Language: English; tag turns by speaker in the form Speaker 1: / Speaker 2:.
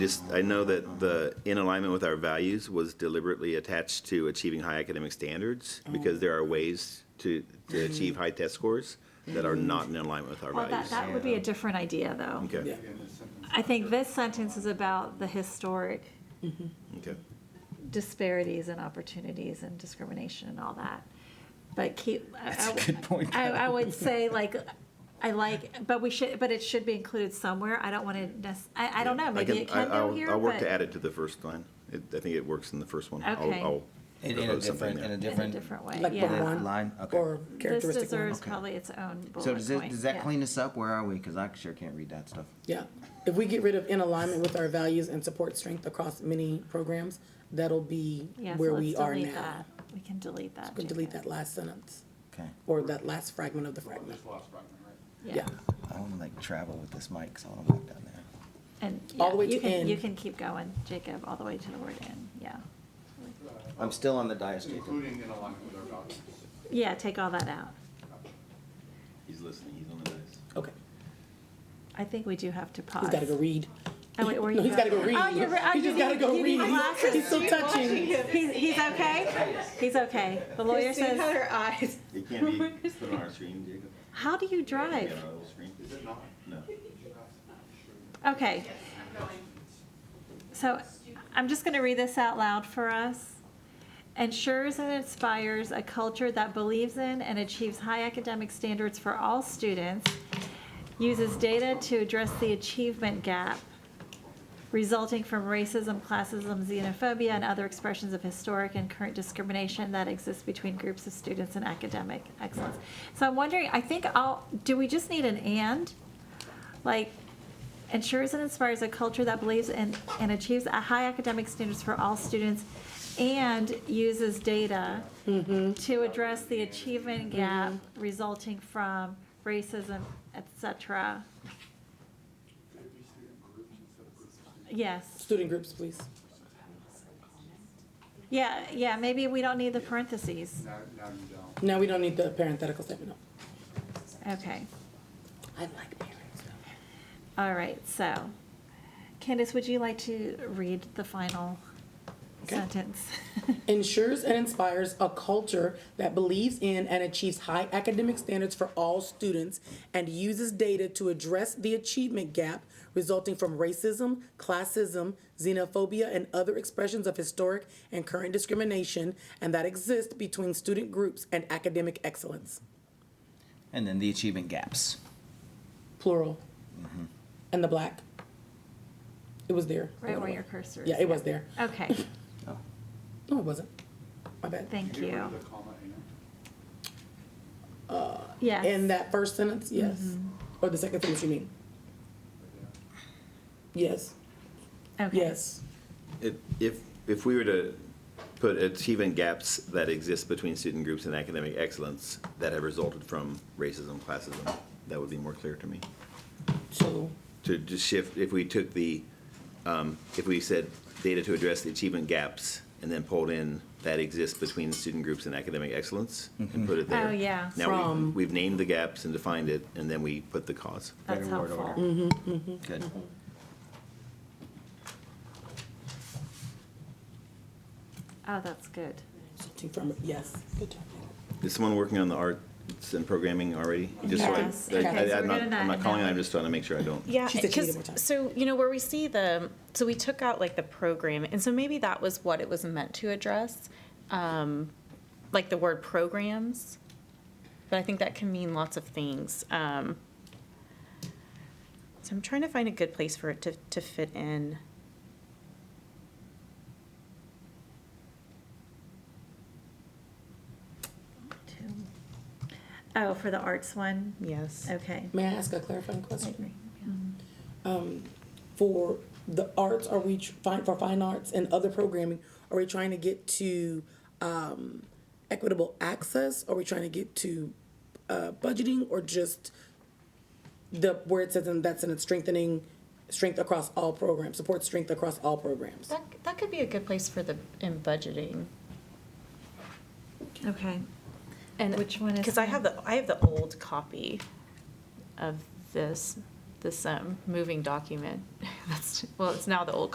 Speaker 1: Just, I know that the in alignment with our values was deliberately attached to achieving high academic standards
Speaker 2: Mm.
Speaker 1: because there are ways to, to achieve high test scores that are not in alignment with our
Speaker 2: Mm-hmm. Well, that,
Speaker 1: values.
Speaker 2: that would be a different idea, though.
Speaker 1: Okay,
Speaker 2: I think this sentence is about the historic
Speaker 1: okay.
Speaker 2: disparities and opportunities and discrimination and all that. But keep. I-
Speaker 3: That's a
Speaker 2: I would-
Speaker 3: good point.
Speaker 2: I, I would say like, I like, but we should, but it should be included somewhere. I don't want to, nec- I, I don't know, maybe it
Speaker 1: I-
Speaker 2: can go
Speaker 1: I'll-
Speaker 2: here,
Speaker 1: I'll work
Speaker 2: but
Speaker 1: to
Speaker 2: in
Speaker 1: add it to the first line. It- I think it works in the first one. I'll-
Speaker 2: Okay.
Speaker 1: I'll
Speaker 3: In, in a
Speaker 1: propose something
Speaker 3: different, in
Speaker 1: there.
Speaker 2: a
Speaker 3: a different.
Speaker 2: different way,
Speaker 4: Like the
Speaker 2: yeah.
Speaker 4: one
Speaker 3: Line, okay.
Speaker 4: or
Speaker 2: This
Speaker 4: characteristic one.
Speaker 2: deserves
Speaker 3: Okay.
Speaker 2: probably its own bullet point.
Speaker 3: So does it, does that
Speaker 2: yeah.
Speaker 3: clean us up? Where are we? Because I sure can't read that stuff.
Speaker 4: Yeah. If we get rid of in alignment with our values and support strength across many programs, that'll be
Speaker 2: Yeah, so
Speaker 4: where
Speaker 2: let's
Speaker 4: we are
Speaker 2: delete
Speaker 4: now.
Speaker 2: that. We can delete that.
Speaker 4: We can delete that
Speaker 2: Jacob.
Speaker 4: last sentence
Speaker 3: Okay.
Speaker 4: or that last fragment of the fragment. Yeah.
Speaker 3: I want to like travel with this mic, so I want to walk down there.
Speaker 2: And
Speaker 4: All
Speaker 2: yeah,
Speaker 4: the way
Speaker 2: you
Speaker 4: to
Speaker 2: can, you
Speaker 4: end.
Speaker 2: can keep going, Jacob, all the way to the word end, yeah.
Speaker 3: I'm still on the dais, Jacob.
Speaker 5: Including in alignment with our values.
Speaker 2: Yeah, take all that out.
Speaker 1: He's listening, he's on the dice.
Speaker 4: Okay.
Speaker 2: I think we do have to pause.
Speaker 4: He's got to go read.
Speaker 2: Oh, wait, where
Speaker 4: No,
Speaker 2: you
Speaker 4: he's got to go read.
Speaker 2: Oh, you're, re- oh,
Speaker 4: He
Speaker 2: you
Speaker 4: just got to
Speaker 2: need,
Speaker 4: go
Speaker 2: you need
Speaker 4: read. He's- He's
Speaker 2: glasses.
Speaker 4: so touching.
Speaker 2: He's, he's okay? He's okay. The lawyer says,
Speaker 4: uh,
Speaker 6: eyes.
Speaker 1: It can't be put on our screen, Jacob?
Speaker 2: how do you drive?
Speaker 1: Is it not? No.
Speaker 2: Okay. So I'm just going to read this out loud for us. Ensures and inspires a culture that believes in and achieves high academic standards for all students, uses data to address the achievement gap resulting from racism, classism, xenophobia, and other expressions of historic and current discrimination that exists between groups of students and academic excellence. So I'm wondering, I think I'll, do we just need an and? Like, ensures and inspires a culture that believes in and achieves a high academic standards for all students and uses data to address the achievement gap resulting from racism, et cetera. Yes,
Speaker 4: Student groups, please.
Speaker 2: yeah, yeah, maybe we don't need the parentheses.
Speaker 5: Now, now you don't.
Speaker 4: Now we don't need the parenthetical statement. No.
Speaker 2: Okay,
Speaker 4: I like parents.
Speaker 2: all right, so Candace, would you like to read the final
Speaker 4: Okay.
Speaker 2: sentence?
Speaker 4: ensures and inspires a culture that believes in and achieves high academic standards for all students and uses data to address the achievement gap resulting from racism, classism, xenophobia, and other expressions of historic and current discrimination and that exist between student groups and academic excellence.
Speaker 3: And then the achievement gaps.
Speaker 4: Plural. And the black. It was there.
Speaker 2: Right where your cursor is.
Speaker 4: Yeah, it was there.
Speaker 2: Okay,
Speaker 3: Oh.
Speaker 4: No, it wasn't. My bad.
Speaker 2: thank
Speaker 5: Get rid
Speaker 2: you.
Speaker 5: of the comma and.
Speaker 2: Yes.
Speaker 4: In that first sentence, yes. Or the second sentence, you mean? Yes,
Speaker 2: Okay.
Speaker 4: yes.
Speaker 1: If, if, if we were to put achievement gaps that exist between student groups and academic excellence that have resulted from racism, classism, that would be more clear to me.
Speaker 4: So,
Speaker 1: To just shift, if we took the, um, if we said data to address the achievement gaps and then pulled in that exists between student groups and academic excellence and put it there.
Speaker 2: Oh, yeah.
Speaker 1: Now,
Speaker 4: From-
Speaker 1: we've, we've named the gaps and defined it, and then we put the cause.
Speaker 2: That's
Speaker 3: Better word
Speaker 2: helpful.
Speaker 3: order. Good.
Speaker 2: Mm-hmm. Oh, that's good.
Speaker 4: something from, yes. Good job.
Speaker 1: Is someone working on the arts and programming already? Just so I-
Speaker 2: Yes.
Speaker 1: I- I-
Speaker 2: Okay, so
Speaker 1: I'm
Speaker 2: we're
Speaker 1: not,
Speaker 2: doing that
Speaker 1: I'm not
Speaker 2: now.
Speaker 1: calling, I'm just trying to make sure I don't.
Speaker 6: Yeah,
Speaker 4: She said she needed
Speaker 6: because,
Speaker 4: more time.
Speaker 6: so, you know, where we see the, so we took out like the program, and so maybe that was what it was meant to address, um, like the word programs. But I think that can mean lots of things. Um, so I'm trying to find a good place for it to, to fit in.
Speaker 2: Two. Oh, for the arts one?
Speaker 6: Yes.
Speaker 2: Okay.
Speaker 4: May I ask a clarifying question? For the arts, are we, tr- fi- for fine arts and other programming, are we trying to get to um, equitable access? Are we trying to get to uh, budgeting or just the, where it says in- that's in its strengthening, strength across all programs, support strength across all programs?
Speaker 6: That, that could be a good place for the, in budgeting.
Speaker 2: Okay.
Speaker 6: And
Speaker 2: Which one is
Speaker 6: Because I
Speaker 2: that?
Speaker 6: have the I have the old copy of this this um, moving document. That's well, it's now the old